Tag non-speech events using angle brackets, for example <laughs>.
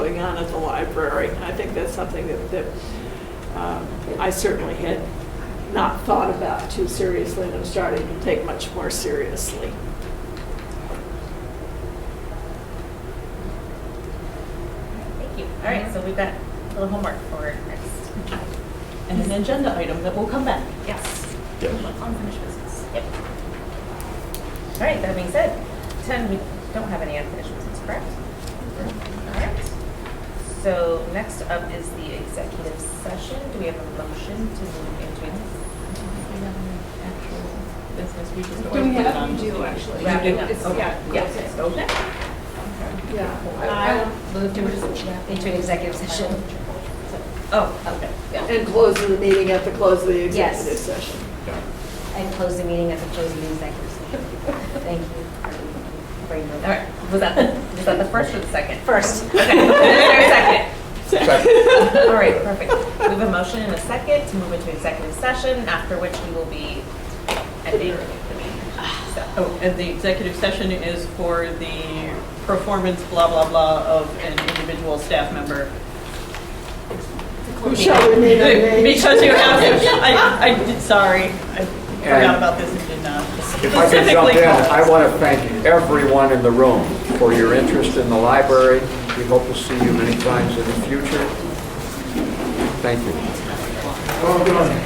on at the library. And I think that's something that, that um, I certainly had not thought about too seriously and I'm starting to take much more seriously. Thank you. All right, so we've got a little homework for next. <laughs> And an agenda item that will come back. Yes. Yeah. Unfinished business. Yep. All right, that being said, 10, we don't have any unfinished business, correct? All right. So next up is the executive session. Do we have a motion to move into it? business, we just Do we always put it have, on. we do actually. Wrapping up. It's- Okay. Yeah. Yes, it's open. Yeah. I will move to into executive session. Oh, okay. And close the meeting at the close of the Yes. executive session. And close the meeting at the close of the executive session. Thank you. Brain All right, was that, the- was that the first or the second? First. <laughs> Okay, Is there a second? Second. All right, perfect. We have a motion and a second to move into executive session, after which we will be ending the meeting. So, Oh, and the executive session is for the performance blah, blah, blah of an individual staff member. Who shall remain <laughs> unnamed? Because you have, I, I, did- sorry, I forgot about this and did not If I could jump specifically in, call us. I want to thank everyone in the room for your interest in the library. We hope to see you many times in the future. Thank you.